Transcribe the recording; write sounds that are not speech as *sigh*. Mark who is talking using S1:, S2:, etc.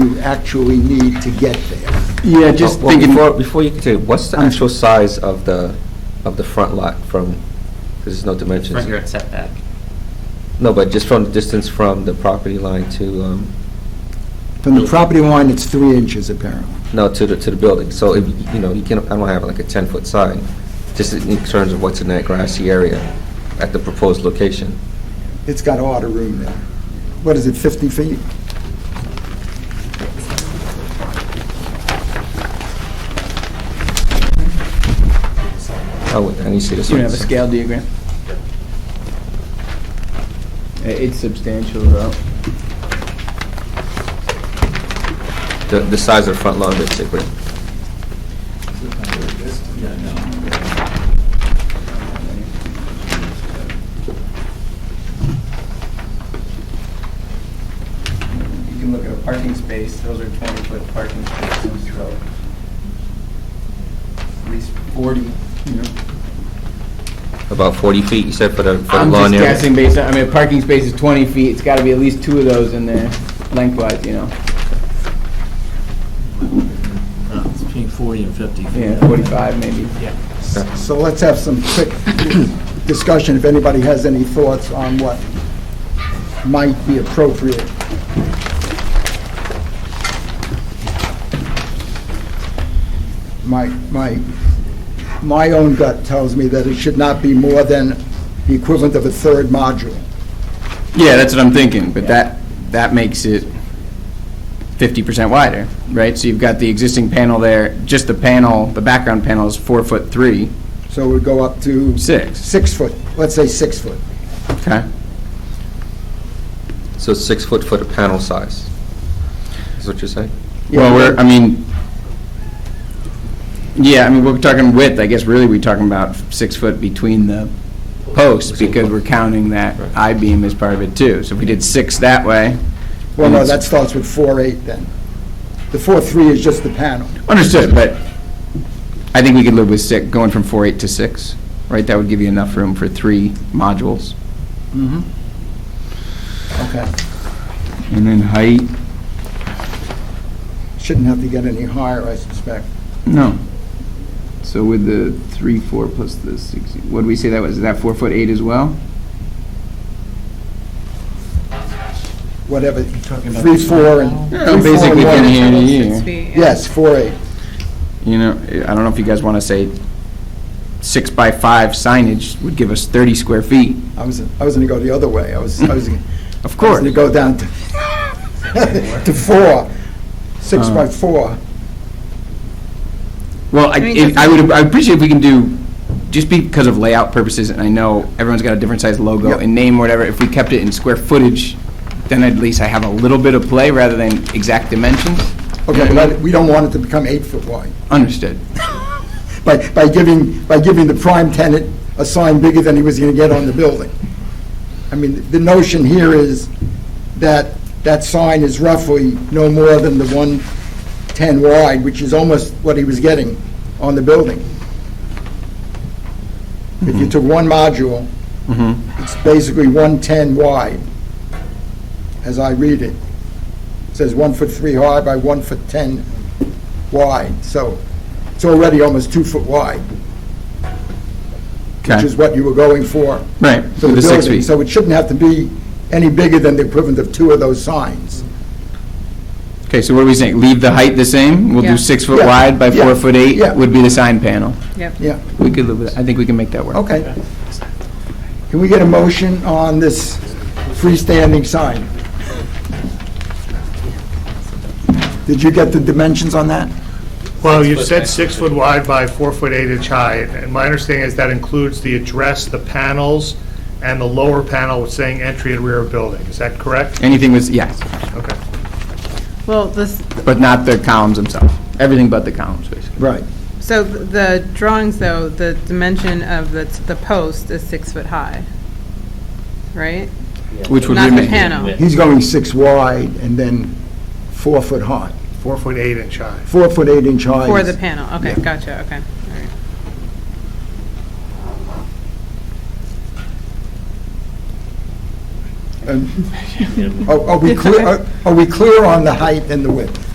S1: you actually need to get there.
S2: Yeah, just
S3: Well,
S2: thinking,
S3: Before, before you continue, what's the
S1: I'm-
S3: actual size of the, of the front lot from, because there's no dimensions.
S4: Front yard setback.
S3: No, but just from the distance from the property line to, um,
S1: From the property line, it's three inches apparently.
S3: no, to the, to the building. So if, you know, you can, I don't have like a 10-foot sign, just in terms of what's in that grassy area at the proposed location.
S1: It's got a lot of room there. What is it, 50 feet?
S3: Oh, wait, I need to see this.
S2: you
S3: one.
S2: have a scale diagram? I- Uh, It's substantial, though.
S3: The, the size of the front lawn, basically.
S2: You can look at a parking space, those are 20-foot parking spaces, so at least 40, you know.
S3: About 40 feet, you said, for the, for the
S2: I'm just
S3: lawn area?
S2: guessing based on, I mean, a parking space is 20 feet, it's got to be at least two of those in there lengthwise, you know?
S5: Uh, It's between 40 and 50.
S2: Yeah, 45 maybe.
S1: So let's have some quick discussion, if anybody has any thoughts on what might be appropriate. My, my, my own gut tells me that it should not be more than the equivalent of a third module.
S2: Yeah, that's what I'm thinking, but that, that makes it 50% wider, right? So you've got the existing panel there, just the panel, the background panel is four foot three,
S1: So it would go up to
S2: six,
S1: six foot, let's say six foot.
S2: okay?
S3: So it's six foot for the panel size, is what you're saying?
S2: Well, we're, I mean, yeah, I mean, we're talking width, I guess really we're talking about six foot between the posts because we're counting that I-beam as part of it too. So if we did six that way.
S1: Well,
S2: and
S1: no,
S2: it's-
S1: that starts with four eight then. The four three is just the panel.
S2: Understood, but I think we could live with six, going from four eight to six, right? That would give you enough room for three modules.
S1: Okay.
S2: And then height,
S1: Shouldn't have to get any higher, I suspect.
S2: no. So with the three, four plus the six, what did we say that was? Is that four foot eight as well?
S1: Whatever, three, four, and...
S2: Yeah,
S1: three, four,
S2: basically
S1: and
S2: from
S1: one.
S2: here to here.
S1: Yes, four eight.
S2: You know, I don't know if you guys want to say six by five signage would give us 30 square feet.
S1: I was, I was gonna go the other way. I was, I was...
S2: Of
S1: I was
S2: course.
S1: gonna go down to, *laughs* to four, six
S2: Uh.
S1: by four.
S2: Well, I,
S6: I mean,
S2: if- I
S6: that's-
S2: would, I appreciate if we can do, just because of layout purposes, and I know everyone's got a different size logo
S1: Yep.
S2: and name, whatever, if we kept it in square footage, then at least I have a little bit of play rather than exact dimensions.
S1: Okay, but I- we don't want it to become eight foot wide.
S2: Understood.
S1: By, by giving, by giving the prime tenant a sign bigger than he was gonna get on the building. I mean, the notion here is that that sign is roughly no more than the 110 wide, which is almost what he was getting on the building. If you took one module, it's basically 110 wide, as I read it. It says one foot three high by one foot 10 wide, so it's already almost two foot wide, which is
S2: Okay,
S1: what you were going for
S2: right,
S1: for
S2: with
S1: the
S2: the six
S1: building.
S2: feet.
S1: So it shouldn't have to be any bigger than the equivalent of two of those signs.
S2: Okay, so what are we saying? Leave the height the same? We'll
S6: Yeah.
S2: do six foot
S1: Yeah,
S2: wide by
S1: yeah,
S2: four foot
S1: yeah.
S2: eight would be the sign panel.
S6: Yep.
S1: Yeah,
S2: We could live with that. I think we can make that work.
S1: okay. Can we get a motion on this freestanding sign? Did you get the dimensions on that?
S7: Well, you said six foot wide by four foot eight inch high, and my understanding is that includes the address, the panels, and the lower panel with saying entry and rear of building. Is that correct?
S2: Anything with, yes,
S7: Okay.
S6: Well, this,
S2: but not the columns themselves. Everything but the columns, basically.
S1: Right.
S6: so th- the drawings, though, the dimension of the, the post is six foot high, right?
S2: Which would
S6: Not
S2: remain.
S6: the panel.
S1: He's going six wide and then four foot high,
S7: Four foot eight inch high.
S1: four foot eight inch high.
S6: For
S1: is-
S6: the panel, okay, gotcha, okay. all right.
S1: oh,
S6: *laughs*
S1: And Are are we clear, are- are we clear on the height and the width?